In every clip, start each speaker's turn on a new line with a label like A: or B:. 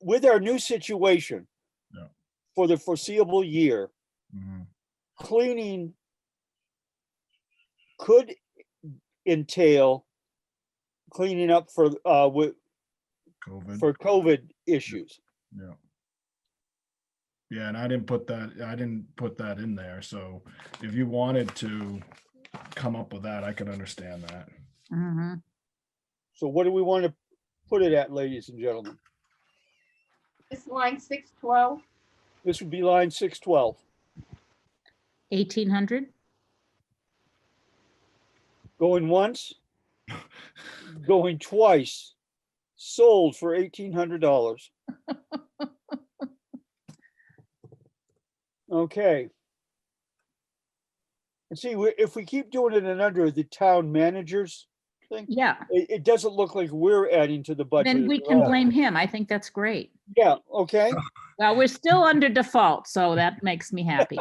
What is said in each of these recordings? A: with our new situation
B: Yeah.
A: for the foreseeable year,
B: Mhm.
A: cleaning could entail cleaning up for, uh, with,
B: COVID.
A: for COVID issues.
B: Yeah. Yeah, and I didn't put that, I didn't put that in there, so if you wanted to come up with that, I could understand that.
C: Mhm.
A: So what do we want to put it at, ladies and gentlemen?
D: It's line six twelve.
A: This would be line six twelve.
C: 1800?
A: Going once, going twice, sold for eighteen hundred dollars. Okay. And see, we- if we keep doing it in under the town managers thing,
C: Yeah,
A: it, it doesn't look like we're adding to the budget.
C: then we
A: at
C: can
A: all.
C: blame him. I think that's great.
A: Yeah, okay,
C: Well, we're still under default, so that makes me happy.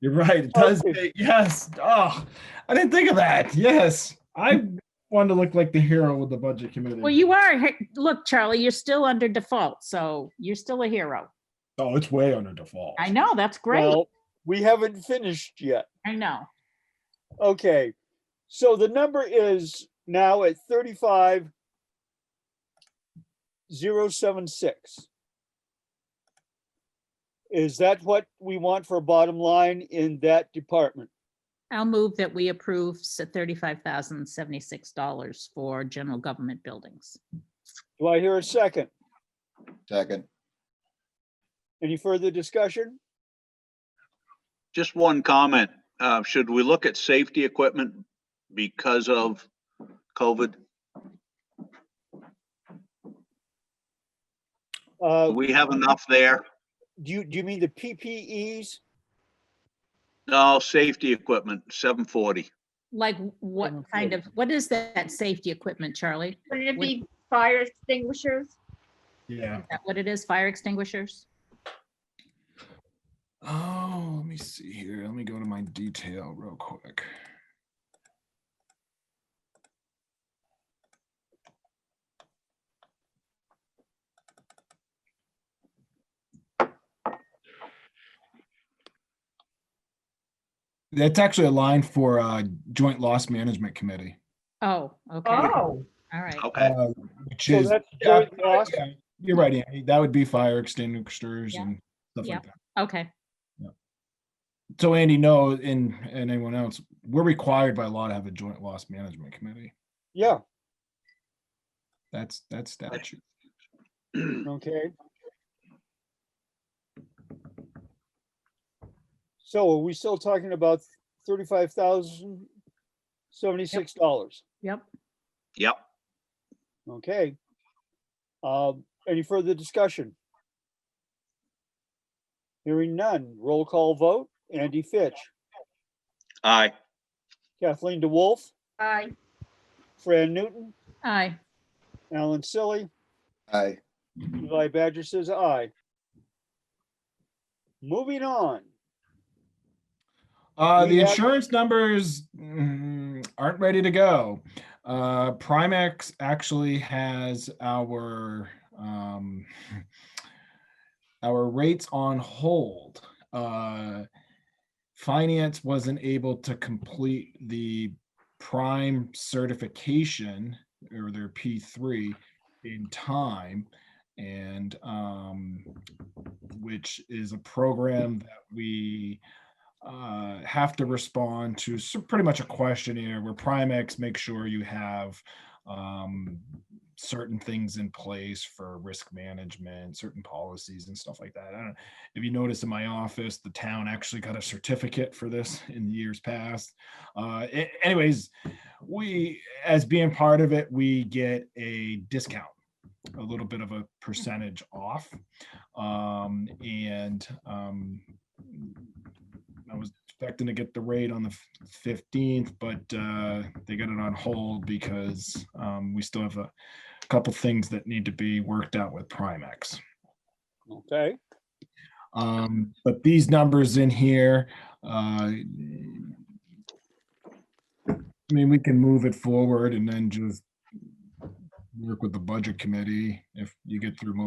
B: You're right, it
C: Oh,
B: does,
A: Okay.
B: say- yes, oh, I didn't think of that, yes. I wanted to look like the hero with the budget committee.
C: Well, you are, he- look, Charlie, you're still under default, so you're still a hero.
B: Oh, it's way under default.
C: I know, that's great.
A: well, we haven't finished yet.
C: I know.
A: Okay, so the number is now at thirty-five zero seven six. Is that what we want for a bottom line in that department?
C: I'll move that we approve s- $35,076 for general government buildings.
A: Do I hear a second?
E: Second.
A: Any further discussion?
F: Just one comment. Uh, should we look at safety equipment because of COVID?
A: Uh,
F: We have enough there.
A: do you, do you mean the PPEs?
F: No, safety equipment, seven forty.
C: Like what
A: General
C: kind of, what is that safety equipment, Charlie?
D: Wouldn't it
C: Would-
D: be fire extinguishers?
B: Yeah.
C: Is that what it is? Fire extinguishers?
B: Oh, let me see here, let me go to my detail real quick. That's actually a line for uh joint loss management committee.
C: Oh, okay. All
D: Oh,
C: right.
F: Okay,
B: uh, Which
A: So
B: is,
A: that's
B: yeah,
A: joint loss?
B: yeah, you're right, Andy, that would be fire extinguishers
C: Yeah.
B: and stuff
C: Yeah.
B: like that.
C: Okay.
B: So Andy, no, and, and anyone else, we're required by law to have a joint loss management committee.
A: Yeah,
B: That's, that's statute.
A: okay. So are we still talking about thirty-five thousand seventy-six dollars?
C: Yep.
F: yep.
A: Okay. Um, any further discussion? Hearing none, roll call vote, Andy Fitch,
F: Aye.
A: Kathleen DeWolf,
D: aye.
A: Fran Newton,
C: Aye.
A: Alan Silly,
E: Aye.
A: Eli Badger says aye. Moving on,
B: Uh,
A: We
B: the
A: have-
B: insurance numbers mm, aren't ready to go. Uh, Primex actually has our, um, our rates on hold. Uh, Finance wasn't able to complete the prime certification or their P3 in time. And, um, which is a program that we, uh, have to respond to s- pretty much a questionnaire where Primex makes sure you have um, certain things in place for risk management, certain policies and stuff like that. I don't, if you notice in my office, the town actually got a certificate for this in years past. Uh, a- anyways, we, as being part of it, we get a discount, a little bit of a percentage off. Um, and um, I was expecting to get the rate on the fifteenth, but uh, they got it on hold because um, we still have a couple things that need to be worked out with Primex.
A: okay?
B: Um, but these numbers in here, uh, I mean, we can move it forward and then just work with the budget committee if you get through most